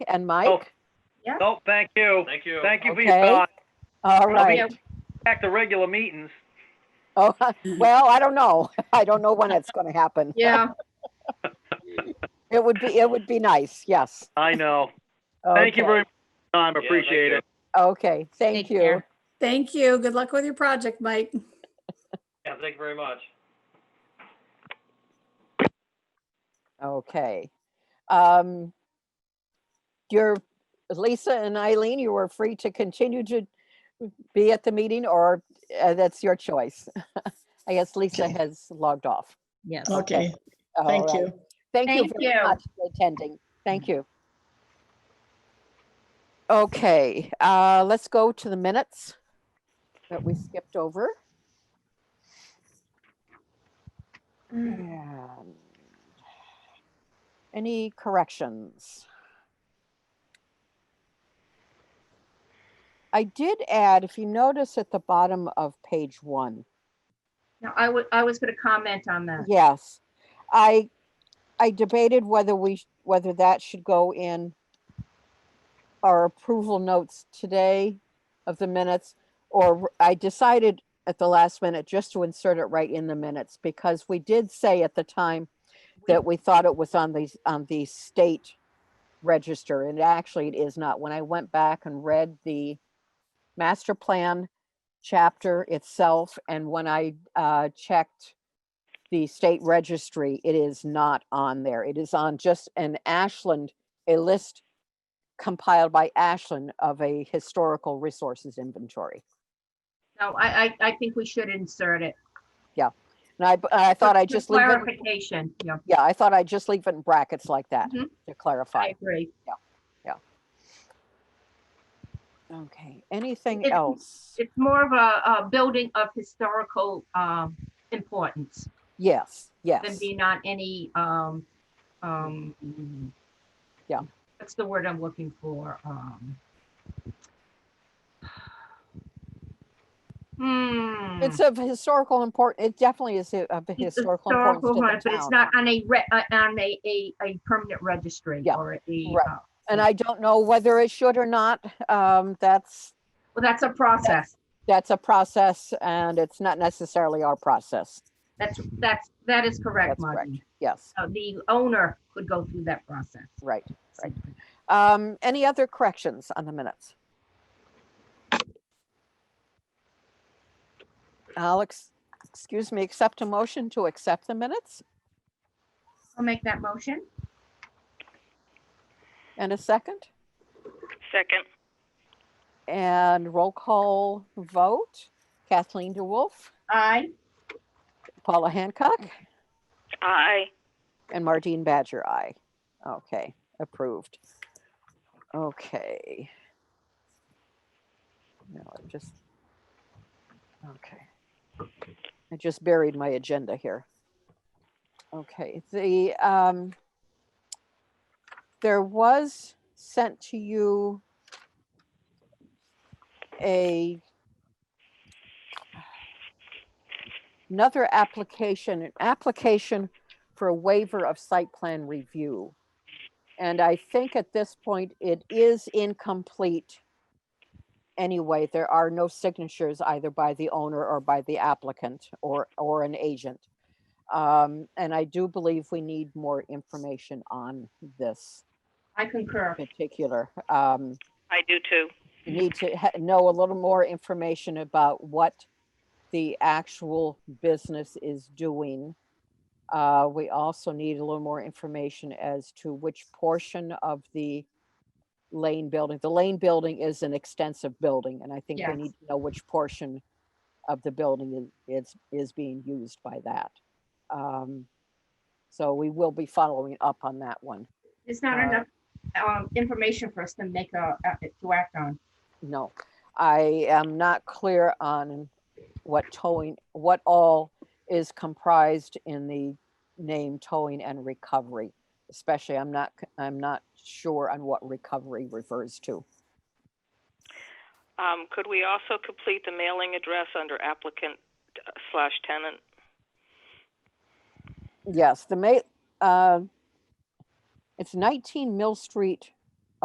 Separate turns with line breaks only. and
Oh,
Mike?
Nope, thank you.
Thank you.
Thank you for your
Okay.
thought.
All
Oh,
I'll be
right.
Back to regular meetings.
Oh, well, I don't know. I don't know when it's going to happen.
Yeah,
It would be, it would be nice, yes.
I know. Thank you
Okay.
very much, Tom.
Yeah, thank
Appreciate
you.
it.
Okay, thank
Take
you.
care.
Thank you. Good luck with your project, Mike.
Yeah, thank you very much.
Okay. Um, You're, Lisa and Eileen, you are free to continue to be at the meeting or uh, that's your choice. I guess Lisa
Okay.
has logged off.
Yes.
Okay,
All
thank
right.
you.
Thank you
Thank
very
you.
much for attending. Thank you. Okay, uh, let's go to the minutes that we skipped over. And Any corrections? I did add, if you notice at the bottom of page one,
no, I would, I was gonna comment on that.
Yes, I, I debated whether we, sh- whether that should go in our approval notes today of the minutes, or I decided at the last minute just to insert it right in the minutes, because we did say at the time that we thought it was on the, on the state register, and actually it is not. When I went back and read the master plan chapter itself, and when I, uh, checked the state registry, it is not on there. It is on just an Ashland, a list compiled by Ashland of a historical resources inventory.
No, I, I, I think we should insert it.
And I, I thought I'd
For
just leave it,
Clarification, yeah,
yeah, I thought I'd just leave it in brackets like that
Mhm.
to
I
clarify.
agree.
Okay, anything
It-
else?
It's more of a, a building of historical, um, importance
Yes,
than
yes,
being on any, um, um.
Yeah.
That's the word I'm looking for, um. Hmm.
it's of historical import, it definitely is a- of
It's
historical
historical one,
importance to
But
the
it's
town.
not on a, re- uh, on a, a, a permanent registry
Yeah,
or a,
right.
uh,
And I don't know whether it should or not, um, that's,
well, that's a process.
that's a process and it's not necessarily our process.
That's, that's, that is correct,
That's correct.
Margie.
Yes,
Uh, The owner could go through that process.
right. Right. Um, any other corrections on the minutes? Alex, excuse me, accept a motion to accept the minutes
I'll make that motion.
and a second
Second,
and roll call vote. Kathleen DeWolf,
Aye.
Paula Hancock.
aye.
And Mardine Badger, aye. Okay, approved. Okay. No, I just, okay. I just buried my agenda here. Okay, the, um, there was sent to you a another application, an application for a waiver of site plan review. And I think at this point, it is incomplete. Anyway, there are no signatures either by the owner or by the applicant or, or an agent. Um, and I do believe we need more information on this
I concur.
particular, um,
I do too.
you need to ha- know a little more information about what the actual business is doing. Uh, we also need a little more information as to which portion of the lane building, the lane building is an extensive building, and I think we
Yes.
need to know which portion of the building is, is, is being used by that. Um, so we will be following up on that one.
There's not
Uh,
enough, um, information for us to make a, a- to act on.
No, I am not clear on what towing, what all is comprised in the name towing and recovery. Especially, I'm not, c- I'm not sure on what recovery refers to.
Um, could we also complete the mailing address under applicant uh, slash tenant?
Yes, the ma, uh, it's 19 Mill Street